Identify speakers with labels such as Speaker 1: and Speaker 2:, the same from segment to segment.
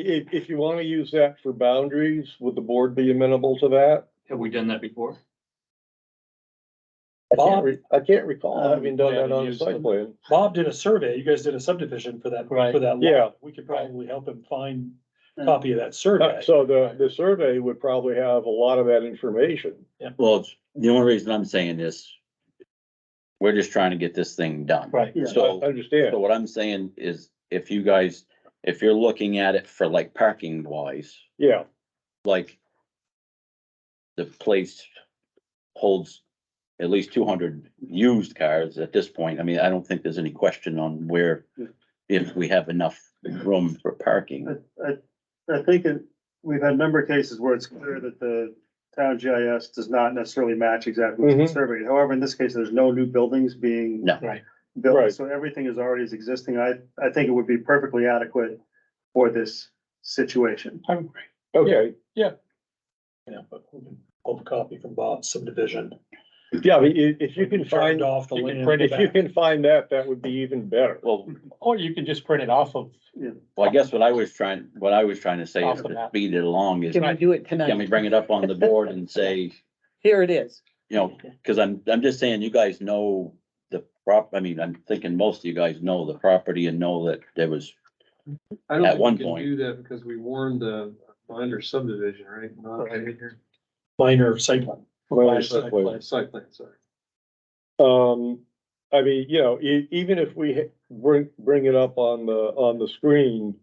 Speaker 1: If, if you want to use that for boundaries, would the board be amenable to that?
Speaker 2: Have we done that before?
Speaker 1: I can't
Speaker 3: Bob,
Speaker 1: re- I can't recall
Speaker 3: Uh,
Speaker 1: having done
Speaker 2: we
Speaker 1: that
Speaker 2: haven't
Speaker 1: on a
Speaker 2: used
Speaker 1: site
Speaker 2: them.
Speaker 1: plan.
Speaker 3: Bob did a survey, you guys did a subdivision for that,
Speaker 2: Right.
Speaker 3: for that
Speaker 1: Yeah.
Speaker 3: lot. We could
Speaker 2: Right.
Speaker 3: probably help him find a copy of that survey.
Speaker 1: Uh, So the, the survey would probably have a lot of that information.
Speaker 4: Well, it's- the only reason I'm saying this, we're just trying to get this thing done.
Speaker 3: Right.
Speaker 1: I
Speaker 4: So,
Speaker 1: understand.
Speaker 4: so what I'm saying is if you guys, if you're looking at it for like parking wise,
Speaker 1: Yeah,
Speaker 4: like the place holds at least two hundred used cars at this point. I mean, I don't think there's any question on where, if we have enough room for parking.
Speaker 5: I, I, I think it, we've had a number of cases where it's clear that the town GIS does not necessarily match exactly what's
Speaker 2: Mm-hmm.
Speaker 1: Mhm.
Speaker 5: been surveyed. However, in this case, there's no new buildings being.
Speaker 4: No.
Speaker 3: Right.
Speaker 1: Right.
Speaker 5: Built, so everything is already is existing. I, I think it would be perfectly adequate for this situation.
Speaker 3: I agree.
Speaker 1: okay.
Speaker 3: Yeah, but we can pull a copy from Bob's subdivision.
Speaker 1: Yeah, I mean, i- if you can
Speaker 3: Turned
Speaker 1: find,
Speaker 3: Off the
Speaker 2: you can
Speaker 3: land.
Speaker 2: print it
Speaker 1: if you can find that, that would be even better.
Speaker 4: Well,
Speaker 2: Or you can just print it off of.
Speaker 4: well, I guess what I was trying, what I was trying to say is
Speaker 2: Off the
Speaker 4: to
Speaker 2: map.
Speaker 4: speed it along is,
Speaker 6: Can we do it
Speaker 4: can we
Speaker 6: tonight?
Speaker 4: bring it up on the board and say,
Speaker 6: Here it is.
Speaker 4: you know, cause I'm, I'm just saying, you guys know the prop, I mean, I'm thinking most of you guys know the property and know that there was,
Speaker 7: I don't
Speaker 4: at
Speaker 7: think
Speaker 4: one
Speaker 7: we can
Speaker 4: point.
Speaker 7: Do that because we warned the minor subdivision, right? Not major-
Speaker 3: Minor site plan.
Speaker 1: Well,
Speaker 7: Site
Speaker 1: exactly.
Speaker 7: plan, site plan, sorry.
Speaker 1: Um, I mean, you know, e- even if we ha- bring, bring it up on the, on the screen,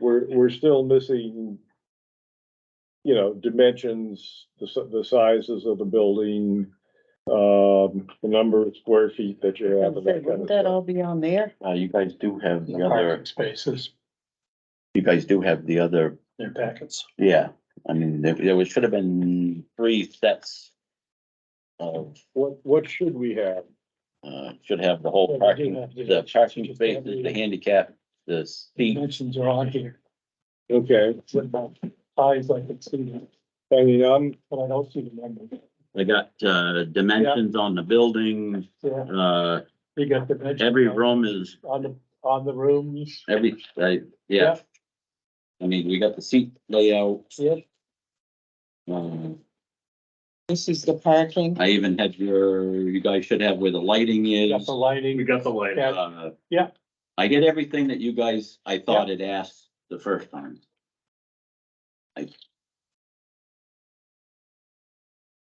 Speaker 1: we're, we're still missing. You know, dimensions, the, si- the sizes of the building, um, the number of square feet that you have. and that kind
Speaker 6: Wouldn't
Speaker 1: of
Speaker 6: that
Speaker 1: stuff.
Speaker 6: all be on there?
Speaker 4: uh, you guys do have the
Speaker 2: The
Speaker 4: other,
Speaker 2: parking spaces.
Speaker 4: you guys do have the other,
Speaker 3: Their packets.
Speaker 4: yeah. I mean, there, there was, should have been three sets of,
Speaker 1: What, what should we have?
Speaker 4: uh, should have the whole
Speaker 2: Yeah, we do
Speaker 4: parking,
Speaker 2: have the-
Speaker 4: the parking spaces, the handicap, the seat.
Speaker 2: Dimensions are on here.
Speaker 1: Okay,
Speaker 2: It's about Eyes like it's, seen,
Speaker 1: I mean, I'm,
Speaker 2: but I don't see the number.
Speaker 4: They got, uh, dimensions on the building,
Speaker 2: Yeah,
Speaker 4: uh,
Speaker 2: you got dimensions.
Speaker 4: every
Speaker 2: on-
Speaker 4: room is,
Speaker 2: On the, on the rooms.
Speaker 4: every, uh, yeah. I mean, we got the seat layout,
Speaker 2: Yep.
Speaker 4: um,
Speaker 6: This is the parking.
Speaker 4: I even had your, you guys should have where the lighting
Speaker 2: Got
Speaker 4: is.
Speaker 2: the lighting.
Speaker 7: We got the light.
Speaker 2: Yeah.
Speaker 4: Uh,
Speaker 2: Yeah.
Speaker 4: I did everything that you guys, I thought it asked the first time.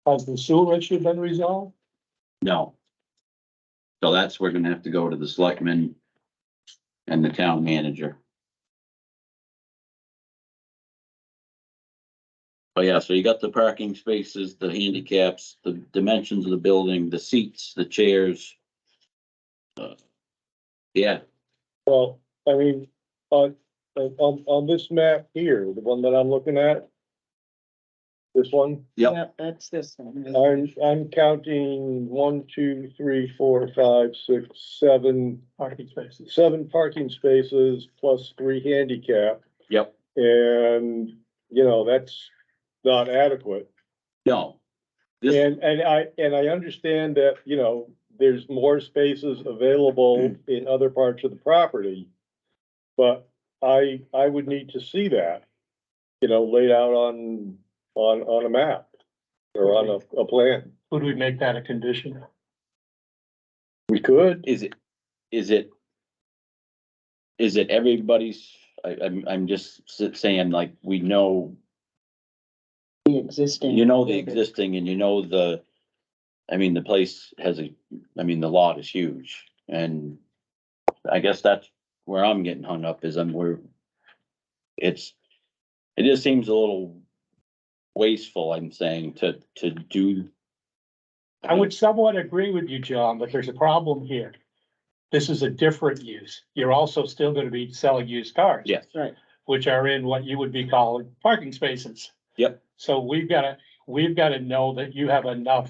Speaker 2: Has the sewer issue been resolved?
Speaker 4: No. So that's, we're gonna have to go to the selectmen and the town manager. Oh, yeah, so you got the parking spaces, the handicaps, the dimensions of the building, the seats, the chairs. Uh, Yeah,
Speaker 1: well, I mean, on, on, on this map here, the one that I'm looking at. This one.
Speaker 4: Yep.
Speaker 6: That's this one.
Speaker 1: I'm, I'm counting one, two, three, four, five, six, seven,
Speaker 2: Parking spaces.
Speaker 1: seven parking spaces plus three handicap.
Speaker 4: Yep.
Speaker 1: And, you know, that's not adequate.
Speaker 4: no. This-
Speaker 1: And, and I, and I understand that, you know, there's more spaces available in other parts of the property. But I, I would need to see that, you know, laid out on, on, on a map or on a, a plan.
Speaker 2: Would we make that a condition?
Speaker 1: We could.
Speaker 4: Is it, is it? Is it everybody's, I, I'm, I'm just s- saying like, we know,
Speaker 6: The existing.
Speaker 4: you know the existing and you know the. I mean, the place has a, I mean, the lot is huge and I guess that's where I'm getting hung up is I'm, we're. It's, it just seems a little wasteful, I'm saying, to, to do.
Speaker 2: I would somewhat agree with you, John, but there's a problem here. This is a different use. You're also still gonna be selling used cars.
Speaker 4: Yes.
Speaker 6: Right.
Speaker 2: Which are in what you would be calling parking spaces.
Speaker 4: Yep.
Speaker 2: So we've gotta, we've gotta know that you have enough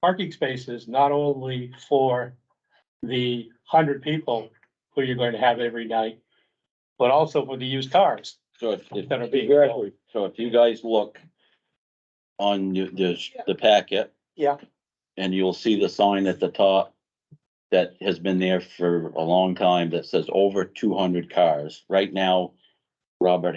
Speaker 2: parking spaces, not only for the hundred people who you're going to have every night, but also for the used cars
Speaker 4: So if, if
Speaker 2: that are being sold.
Speaker 1: Exactly.
Speaker 4: So if you guys look on your- the, the packet.
Speaker 2: Yeah.
Speaker 4: And you'll see the sign at the top that has been there for a long time that says over two hundred cars. Right now, Robert